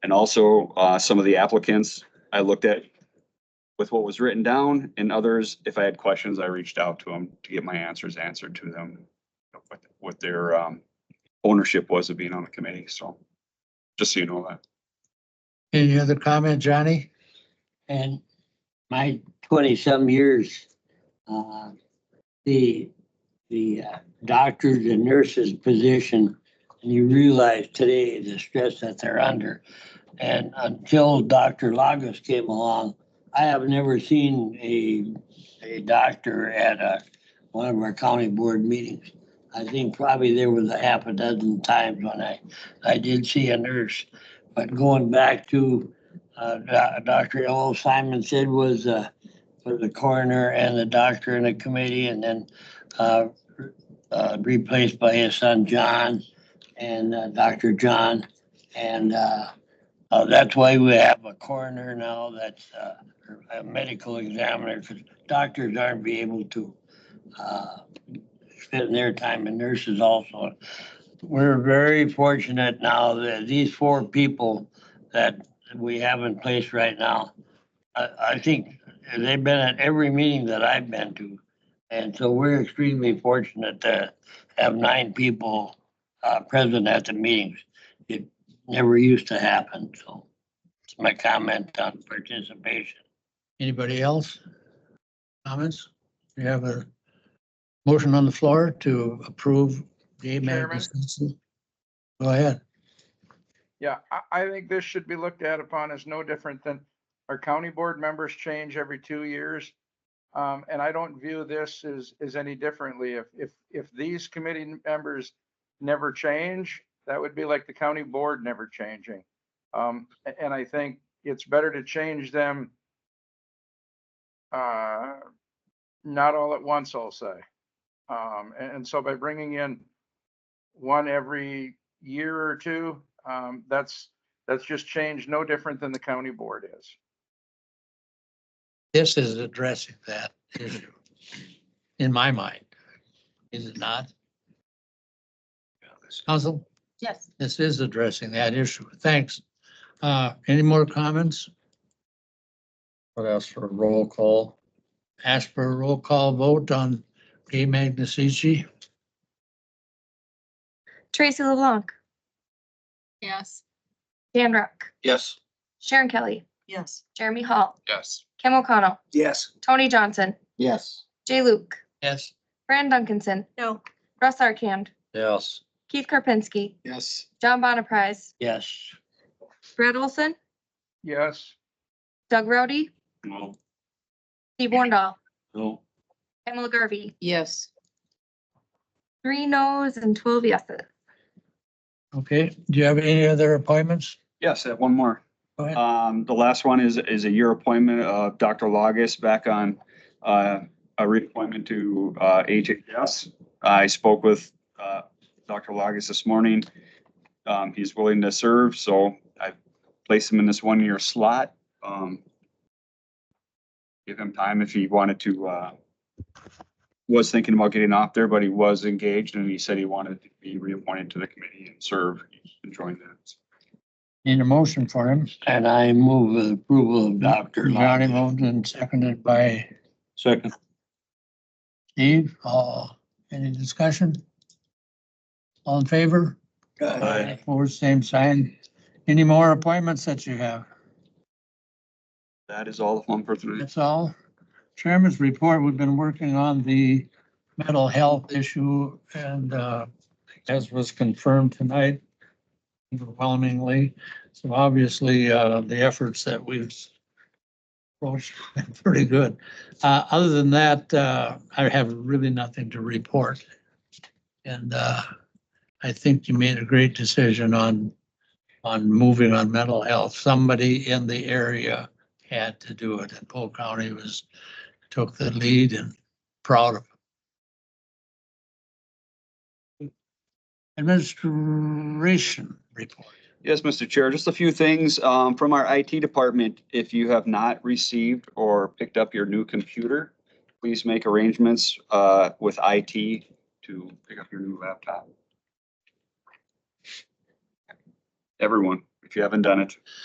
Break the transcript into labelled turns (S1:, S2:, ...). S1: And also, uh, some of the applicants I looked at with what was written down and others, if I had questions, I reached out to them to get my answers answered to them. What, what their, um, ownership was of being on the committee, so just so you know that.
S2: Any other comment, Johnny?
S3: And my twenty-some years, uh, the, the uh, doctors and nurses position, and you realize today the stress that they're under. And until Dr. Lagos came along, I have never seen a, a doctor at a, one of our county board meetings. I think probably there was a half a dozen times when I, I did see a nurse. But going back to uh, Do- Dr. L. Simon said was, uh, for the coroner and the doctor and the committee and then, uh, uh, replaced by his son John and, uh, Dr. John. And, uh, uh, that's why we have a coroner now that's, uh, a medical examiner because doctors aren't be able to, uh, spend their time and nurses also. We're very fortunate now that these four people that that we have in place right now. I, I think they've been at every meeting that I've been to. And so we're extremely fortunate to have nine people, uh, present at the meetings. It never used to happen, so it's my comment on participation.
S2: Anybody else? Comments? We have a motion on the floor to approve the AMAG.
S4: Chairman?
S2: license. Go ahead.
S4: Yeah, I, I think this should be looked at upon as no different than our county board members change every two years. Um, and I don't view this as, as any differently. If, if, if these committee members never change, that would be like the county board never changing. Um, a- and I think it's better to change them uh, not all at once, I'll say. Um, and, and so by bringing in one every year or two, um, that's, that's just changed, no different than the county board is.
S2: This is addressing that issue, in my mind. Is it not? Council,
S5: Yes.
S2: this is addressing that issue. Thanks. Uh, any more comments? What else for a roll call? Ask for a roll call vote on Gay Magnifici.
S6: Tracy LeBlanc,
S5: Yes.
S6: Dan Rock,
S7: Yes.
S6: Sharon Kelly,
S5: Yes.
S6: Jeremy Hall,
S7: Yes.
S6: Kim O'Connell,
S7: Yes.
S6: Tony Johnson,
S7: Yes.
S6: Jay Luke,
S2: Yes.
S6: Fran Duncanson,
S5: No.
S6: Russ Arkand,
S7: Yes.
S6: Keith Karpinski,
S7: Yes.
S6: John Bonaprise,
S3: Yes,
S6: Brad Olson,
S4: Yes,
S6: Doug Rowdy,
S7: No.
S6: Steve Wornall,
S7: No.
S6: Pamela Garvey.
S5: Yes.
S6: Three noes and twelve yeses.
S2: Okay, do you have any other appointments?
S1: Yes, I have one more.
S2: Go ahead.
S1: Um, the last one is, is a year appointment of Dr. Logis back on, uh, a reappointment to, uh, HHS. I spoke with, uh, Dr. Logis this morning. Um, he's willing to serve, so I placed him in this one-year slot. Um, give him time if he wanted to, uh, was thinking about getting off there, but he was engaged and he said he wanted to be reappointed to the committee and serve, and join that.
S2: Need a motion for him.
S3: and I move with approval of Dr. Lonnie.
S2: Johnny moved and seconded by
S7: Second.
S2: Steve. Uh, any discussion? All in favor?
S7: Aye.
S2: Opposed, same sign. Any more appointments that you have?
S1: That is all of one for three.
S2: That's all. Chairman's report, we've been working on the mental health issue and, uh, as was confirmed tonight overwhelmingly. So obviously, uh, the efforts that we've approached have been pretty good. Uh, other than that, uh, I have really nothing to report. And, uh, I think you made a great decision on, on moving on mental health. Somebody in the area had to do it. And Polk County was, took the lead and proud of. it. Administration report.
S1: Yes, Mr. Chair, just a few things um, from our IT department. If you have not received or picked up your new computer, please make arrangements uh, with IT to pick up your new laptop. Everyone, if you haven't done it.